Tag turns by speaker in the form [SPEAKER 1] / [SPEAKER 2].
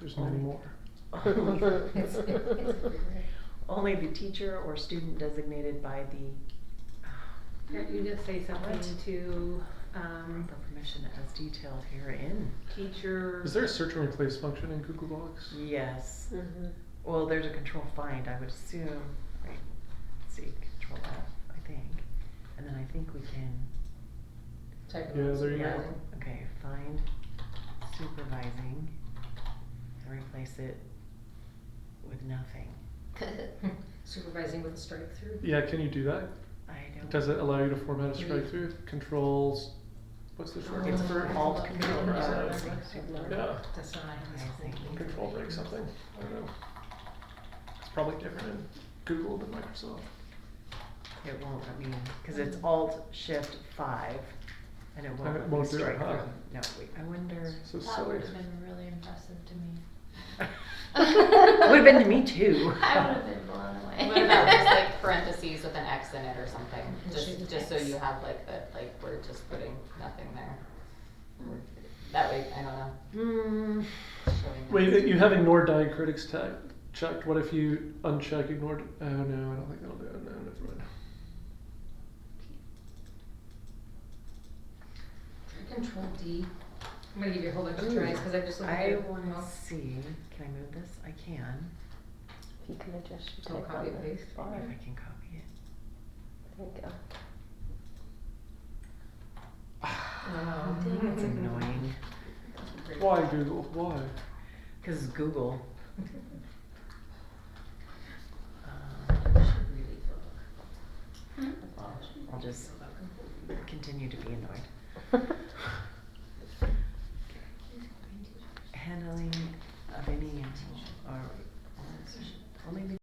[SPEAKER 1] person anymore.
[SPEAKER 2] Only the teacher or student designated by the, um,
[SPEAKER 3] Can't you just say something
[SPEAKER 2] What?
[SPEAKER 3] to, um,
[SPEAKER 2] proper permission as detailed herein.
[SPEAKER 3] teacher?
[SPEAKER 1] Is there a search and replace function in Google Docs?
[SPEAKER 2] Yes,
[SPEAKER 3] Mm-hmm.
[SPEAKER 4] Mhm.
[SPEAKER 2] well, there's a control find, I would assume, right, let's see, control F, I think, and then I think we can,
[SPEAKER 4] Type
[SPEAKER 1] Yeah,
[SPEAKER 4] of
[SPEAKER 1] there you go.
[SPEAKER 2] yeah,
[SPEAKER 4] line.
[SPEAKER 2] okay, find supervising, and replace it with nothing.
[SPEAKER 4] Supervising with a strike through.
[SPEAKER 1] Yeah, can you do that?
[SPEAKER 2] I don't.
[SPEAKER 1] Does it allow you to format a strike
[SPEAKER 4] Yeah.
[SPEAKER 1] through? Controls, what's the short
[SPEAKER 2] It's
[SPEAKER 4] Um,
[SPEAKER 1] name for it?
[SPEAKER 2] for alt
[SPEAKER 4] Yeah.
[SPEAKER 2] control,
[SPEAKER 1] right? Yeah.
[SPEAKER 4] Design.
[SPEAKER 1] Control break something, I don't know. It's probably different in Google than Microsoft.
[SPEAKER 2] It won't, I mean, cause it's alt shift five, and it
[SPEAKER 1] And
[SPEAKER 2] won't
[SPEAKER 1] it
[SPEAKER 2] let me
[SPEAKER 1] won't do it,
[SPEAKER 2] strike
[SPEAKER 1] huh?
[SPEAKER 2] through. No, wait, I wonder.
[SPEAKER 1] So
[SPEAKER 5] That
[SPEAKER 1] silly.
[SPEAKER 5] would have been really impressive to me.
[SPEAKER 2] Would've been to me too.
[SPEAKER 5] I would have been blown away.
[SPEAKER 6] What about just like parentheses with an X in it or something, just,
[SPEAKER 4] Shoot
[SPEAKER 6] just so
[SPEAKER 4] X.
[SPEAKER 6] you have like that, like, we're just putting nothing there. That way, I don't know,
[SPEAKER 2] Hmm,
[SPEAKER 6] showing.
[SPEAKER 1] Wait, you have ignore diacritics tag checked. What if you uncheck ignored? Oh no, I don't think that'll do it. No, never mind.
[SPEAKER 4] Control D. I'm gonna give you a whole bunch of
[SPEAKER 2] Ooh.
[SPEAKER 4] tries, cause I've just looked at
[SPEAKER 2] I
[SPEAKER 4] it.
[SPEAKER 2] wanna
[SPEAKER 4] Well,
[SPEAKER 2] see, can I move this? I can,
[SPEAKER 7] If you can adjust your
[SPEAKER 4] Don't
[SPEAKER 7] type
[SPEAKER 4] copy
[SPEAKER 7] on the
[SPEAKER 4] paste.
[SPEAKER 2] if
[SPEAKER 7] bar.
[SPEAKER 2] I can copy it.
[SPEAKER 7] There you go.
[SPEAKER 4] Wow.
[SPEAKER 2] It's annoying,
[SPEAKER 4] Um, Great.
[SPEAKER 1] Why Google? Why?
[SPEAKER 2] cause it's Google.
[SPEAKER 4] Should
[SPEAKER 2] Um,
[SPEAKER 4] really look.
[SPEAKER 2] I'll just continue to be annoyed. Handling of any, or, or maybe